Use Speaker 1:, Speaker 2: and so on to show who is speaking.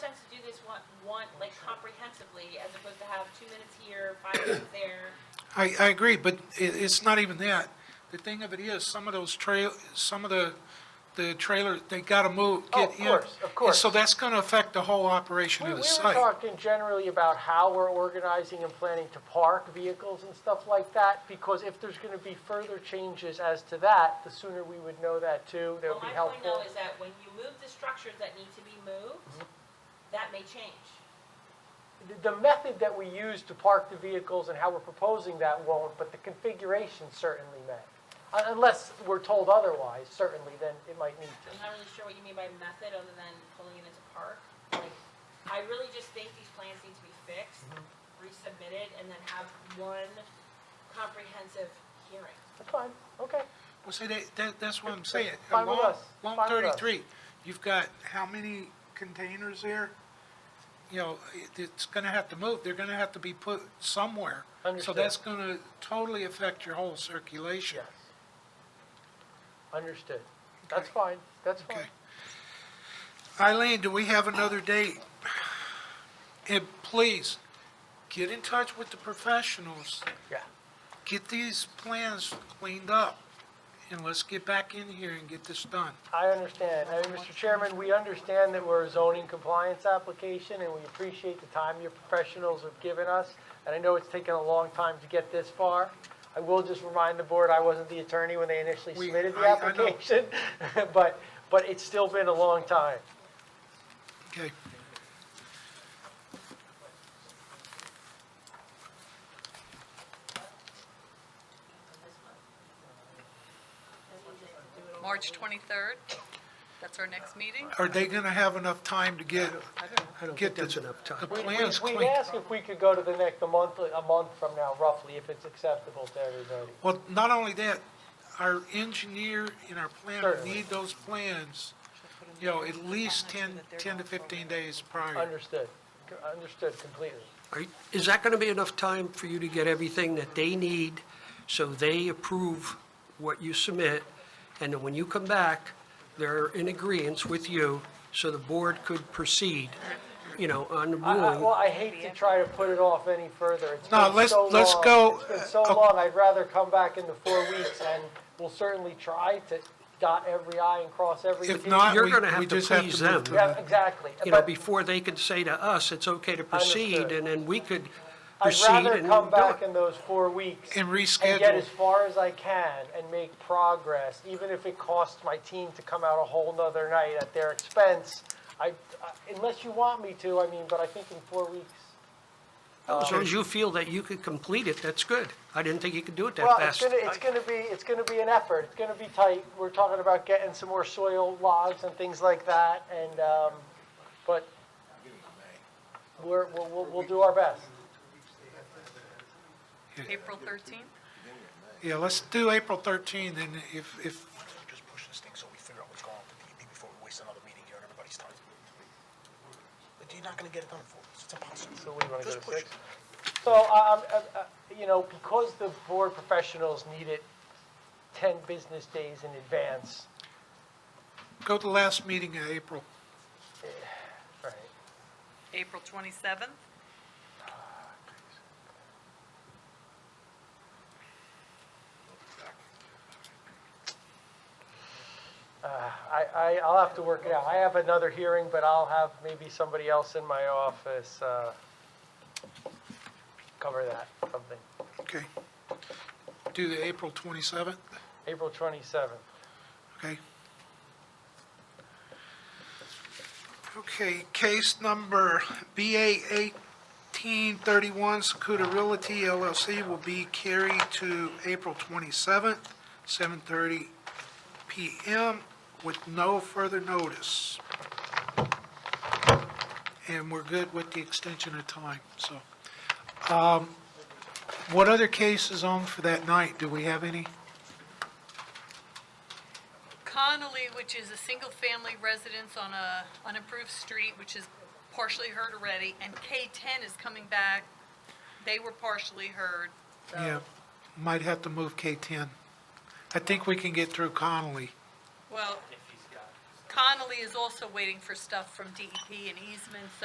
Speaker 1: want, like comprehensively, as opposed to have two minutes here, five minutes there.
Speaker 2: I, I agree, but i it's not even that. The thing of it is, some of those trail, some of the, the trailer, they gotta move,
Speaker 3: Oh,
Speaker 2: get
Speaker 3: of
Speaker 2: in.
Speaker 3: course, of
Speaker 2: And
Speaker 3: course.
Speaker 2: So that's gonna affect the whole operation
Speaker 3: We,
Speaker 2: of
Speaker 3: we
Speaker 2: the
Speaker 3: were
Speaker 2: site.
Speaker 3: talking generally about how we're organizing and planning to park vehicles and stuff like that, because if there's gonna be further changes as to that, the sooner we would know that too, that
Speaker 1: Well,
Speaker 3: would be
Speaker 1: my point though
Speaker 3: helpful.
Speaker 1: is that when you move the structures that need to be moved,
Speaker 3: Mm-hmm.
Speaker 1: that may change.
Speaker 3: The- The method that we use to park the vehicles and how we're proposing that won't, but the configuration certainly may. Un- Unless we're told otherwise, certainly, then it might need to.
Speaker 1: I'm not really sure what you mean by method, other than pulling it into park. Like, I really just think these plans need to be fixed,
Speaker 3: Mm-hmm.
Speaker 1: resubmitted, and then have one comprehensive hearing.
Speaker 3: That's fine, okay.
Speaker 2: Well, see, that, that, that's what I'm saying.
Speaker 3: Fine with
Speaker 2: Along-
Speaker 3: us.
Speaker 2: along
Speaker 3: Fine with us.
Speaker 2: thirty-three, you've got how many containers there? You know, it, it's gonna have to move, they're gonna have to be put somewhere. So
Speaker 3: Understood.
Speaker 2: that's gonna totally affect your whole circulation.
Speaker 3: Yes. Understood. That's fine, that's fine.
Speaker 2: Okay. Eileen, do we have another date? And please, get in touch with the professionals,
Speaker 3: Yeah,
Speaker 2: get these plans cleaned up, and let's get back in here and get this done.
Speaker 3: I understand. I mean, Mr. Chairman, we understand that we're a zoning compliance application, and we appreciate the time your professionals have given us. And I know it's taken a long time to get this far. I will just remind the board, I wasn't the attorney when they initially
Speaker 2: We-
Speaker 3: submitted the
Speaker 2: I- I know.
Speaker 3: application, but, but it's still been a long time.
Speaker 2: Okay.
Speaker 4: March 23rd, that's our next meeting.
Speaker 2: Are they gonna have enough time to get, get the, the
Speaker 3: We- we-
Speaker 2: plans
Speaker 3: We'd
Speaker 2: cleaned?
Speaker 3: ask if we could go to the next, a month, a month from now roughly, if it's acceptable to everybody.
Speaker 2: Well, not only that, our engineer and our planner
Speaker 3: Certainly.
Speaker 2: need those plans, you know, at least 10 10 to fifteen days prior.
Speaker 3: Understood, C- understood completely.
Speaker 5: Are- Is that going to be enough time for you to get everything that they need so they approve what you submit? And then when you come back, they're in agreeance with you so the board could proceed, you know, on the
Speaker 3: I- I- Well,
Speaker 5: ruling.
Speaker 3: I hate to try to put it off any further. It's
Speaker 2: No,
Speaker 3: been
Speaker 2: let's-
Speaker 3: so
Speaker 2: let's
Speaker 3: long.
Speaker 2: go,
Speaker 3: It's been so
Speaker 2: uh,
Speaker 3: long, I'd rather come back into four weeks, and we'll certainly try to dot every i and cross every t.
Speaker 2: If not,
Speaker 5: You're
Speaker 2: we,
Speaker 5: gonna have
Speaker 2: we
Speaker 5: to
Speaker 2: just have
Speaker 5: please
Speaker 2: to move
Speaker 5: them.
Speaker 2: to
Speaker 3: Yeah,
Speaker 2: the,
Speaker 3: exactly.
Speaker 5: You know,
Speaker 3: But
Speaker 5: before they can say to us, it's okay to proceed,
Speaker 3: Understood.
Speaker 5: and then we could
Speaker 3: I'd
Speaker 5: proceed and do
Speaker 3: rather
Speaker 5: it.
Speaker 3: come back in those four weeks.
Speaker 2: and
Speaker 3: And get
Speaker 2: reschedule.
Speaker 3: as far as I can and make progress, even if it costs my team to come out a whole nother night at their expense. I, I- unless you want me to, I mean, but I think in four weeks.
Speaker 5: As
Speaker 3: uh,
Speaker 5: long as you feel that you could complete it, that's good. I didn't think you could do it that
Speaker 3: Well, it's
Speaker 5: fast.
Speaker 3: gonna, it's gonna be, it's gonna be an effort, it's gonna be tight, we're talking about getting some more soil logs and things like that, and, um, but we're, we'll, we'll, we'll do our best.
Speaker 4: April 13th?
Speaker 2: Yeah, let's do April thirteenth, and if, if
Speaker 6: just push this thing so we figure out what's going on with the DEP before we waste another meeting here and everybody's time. But you're not gonna get it done for us, it's impossible.
Speaker 3: So what do you wanna go
Speaker 6: Just
Speaker 3: to
Speaker 6: push
Speaker 3: six?
Speaker 6: it.
Speaker 3: So, I, I'm, I- I- you know, because the board professionals need it ten business days in advance,
Speaker 2: Go to the last meeting in April.
Speaker 3: right?
Speaker 4: April 27th?
Speaker 3: I, I, I'll have to work it out, I have another hearing, but I'll have maybe somebody else in my office, uh, cover that, something.
Speaker 2: Okay. Do the April 27th,
Speaker 3: April 27th.
Speaker 2: okay? Okay, case number BA 1831, Secuda Realty LLC will be carried to April 27th, 7:30 PM with no further notice. And we're good with the extension of time, so. Um, What other cases on for that night? Do we have any?
Speaker 4: Connolly, which is a single-family residence on a unimproved street, which is partially heard already, and K10 is coming back. They were partially heard,
Speaker 2: Yeah,
Speaker 4: so,
Speaker 2: might have to move K-10. I think we can get through Connolly.
Speaker 4: well, Connolly is also waiting for stuff from DEP E and easements,